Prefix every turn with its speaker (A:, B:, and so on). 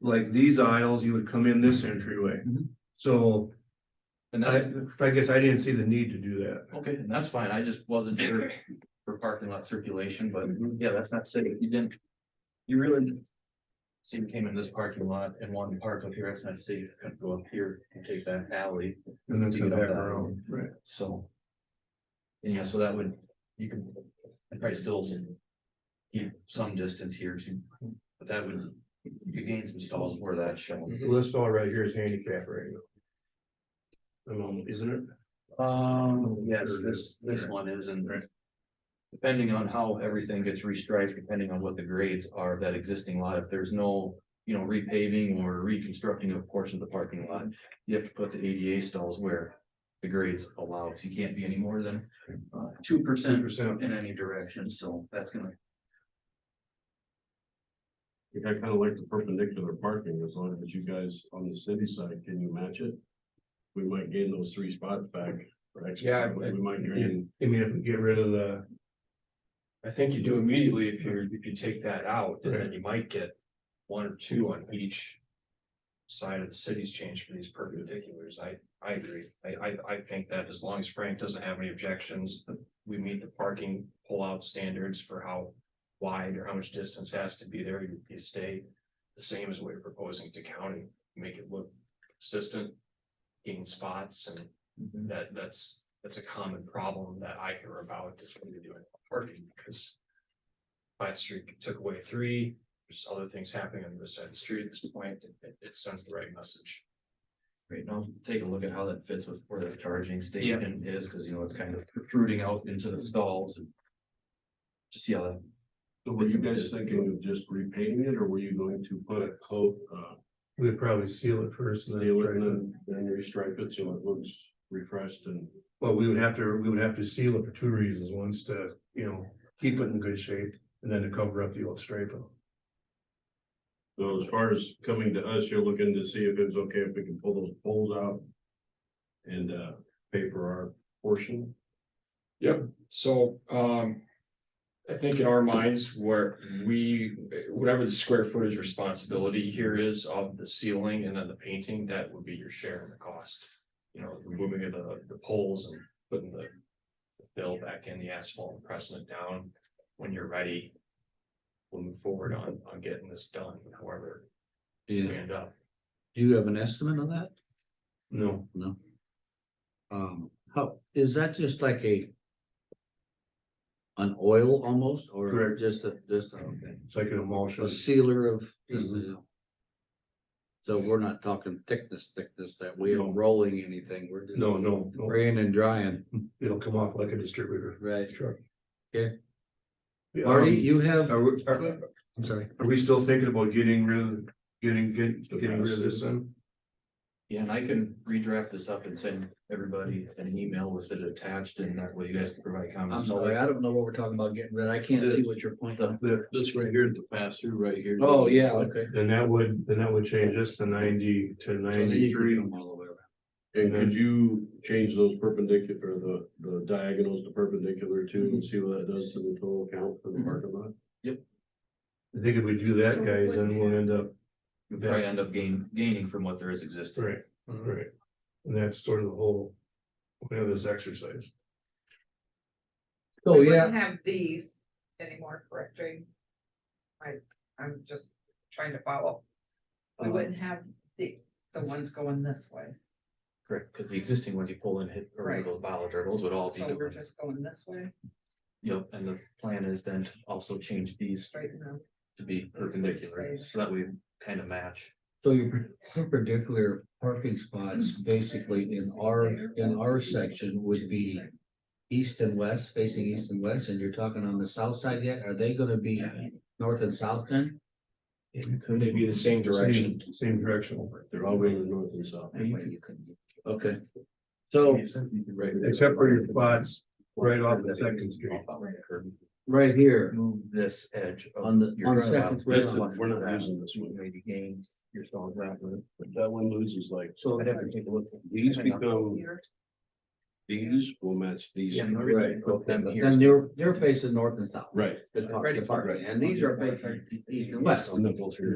A: like these aisles, you would come in this entryway.
B: Mhm.
A: So
B: And
A: I,
B: that's,
A: I guess I didn't see the need to do that.
B: okay, and that's fine, I just wasn't sure for parking lot circulation, but yeah, that's not safe, you didn't. You really. didn't. So you came in this parking lot and wanted to park up here, that's not safe, you could go up here and take that alley,
A: And then
B: To
A: come
B: get up
A: back
B: that.
A: around, right?
B: so. And yeah, so that would, you could, I'd probably still. Keep some distance here, so, but that would, you could gain some stalls where that's shown.
A: Well, This all right here is handicap right now. Um, isn't it?
B: Um, yes, this, this one is and. Depending on how everything gets restriped, depending on what the grades are of that existing lot, if there's no, you know, repaving or reconstructing a portion of the parking lot. You have to put the ADA stalls where the grades allow, because you can't be any more than uh two
A: Two
B: percent
A: percent.
B: in any direction, so that's gonna.
C: I kinda like the perpendicular parking, as long as you guys on the city side, can you match it? We might gain those three spots back, or
D: Yeah,
C: extra,
D: I-
C: we might gain,
A: I mean, if we get rid of the,
D: I think you do immediately if you, if you take that out, and then you might get one or two on each. Side of the city's change for these perpendiculars, I, I agree, I, I, I think that as long as Frank doesn't have any objections, that we meet the parking pullout standards for how. Wide or how much distance has to be there, you, you stay the same as what you're proposing to county, make it look consistent. Gain spots and that, that's, that's a common problem that I hear about, is when you're doing parking, because. Pine Street took away three, there's other things happening on the other side of the street at this point, it, it sends the right message.
B: Right now, take a look at how that fits with where the charging
D: Yeah.
B: station is, because you know, it's kind of protruding out into the stalls and. Just see how that
C: so were you guys thinking of just repainting it, or were you going to put a coat, uh,
A: we'd probably seal it first and
C: seal it and
A: then.
C: then, then restripe it so it looks refreshed and.
A: Well, we would have to, we would have to seal it for two reasons. One's to, you know, keep it in good shape and then to cover up the old striping.
C: So as far as coming to us, you're looking to see if it's okay if we can pull those poles out and, uh, pay for our portion,
D: So, um. I think in our minds, where we, whatever the square footage responsibility here is of the ceiling and then the painting, that would be your share in the cost. You know, removing of the, the poles and putting the. Fill back in the asphalt and pressing it down when you're ready. We'll move forward on, on getting this done, however
E: Do
D: we
E: you,
D: end up.
E: do you have an estimate of that?
A: No,
E: Um, how, is that just like a? An oil almost, or
A: Correct.
E: just a, just, a- okay,
A: it's like an emulsion.
E: a sealer of, just a. So we're not talking thickness, thickness, that we
A: No.
E: are rolling anything, we're just
A: No, no, no,
E: spraying and drying,
A: it'll come off like a distributor.
E: right?
A: Sure. um,
E: Okay. Marty, you have,
A: Are we, are,
E: I'm sorry,
A: are we still thinking about getting rid of, getting, get- getting rid of this then?
B: Yeah, and I can redraft this up and send everybody an email with it attached and that way you guys can provide comments.
E: I'm sorry, I don't know what we're talking about getting rid, I can't see what your point of.
A: The-
C: This right here, the pass through right here.
E: Oh, yeah, okay.
A: Then that would, then that would change this to ninety to ninety-three.
E: Them all the way around.
C: And could you change those perpendicular, the, the diagonals to perpendicular too, and see what that does to the total count for
A: Mm-hmm.
C: the parking lot?
A: I think if we do that, guys, then we'll end up,
B: You probably end up gain, gaining from what there is existing.
A: right, right. And that's sort of the whole, point of this exercise.
E: So,
B: Oh,
F: We
E: Oh, yeah,
F: wouldn't Have these anymore, correct, Jane? I, I'm just trying to follow. We
E: Uh,
F: wouldn't have the, the ones going this way,
B: Correct. Because the existing ones you pull and hit, or
F: Right.
B: those ballot hurdles would all be,
F: so we're
B: different.
F: just going this way,
B: yep, and the plan is then to also change these
F: straighten them.
B: to be perpendicular, so that we kind of match.
E: So your perpendicular parking spots basically in our, in our section would be east and west, facing east and west, and you're talking on the south side yet? Are they gonna be north and south then?
D: Could they be the same direction?
A: Same- Same direction.
C: They're all going north and south.
B: Yeah, you
E: Okay. So
A: Except for your spots right off the second street.
E: right here
B: Move this edge. of
E: on the,
B: your
E: on the
B: curb
E: second.
B: out.
C: This
E: floor.
C: is- we're not using this one.
B: Maybe gain your stall gravel.
C: That one loses like,
E: So
B: I'd have to take a look.
C: these become,
F: Here,
C: these will match these.
B: Yeah, in order to
E: Right.
B: put them here.
E: then they're, they're facing north and south,
C: Right.
E: the car- the parking, and these are facing east and west.
C: Knuckles here.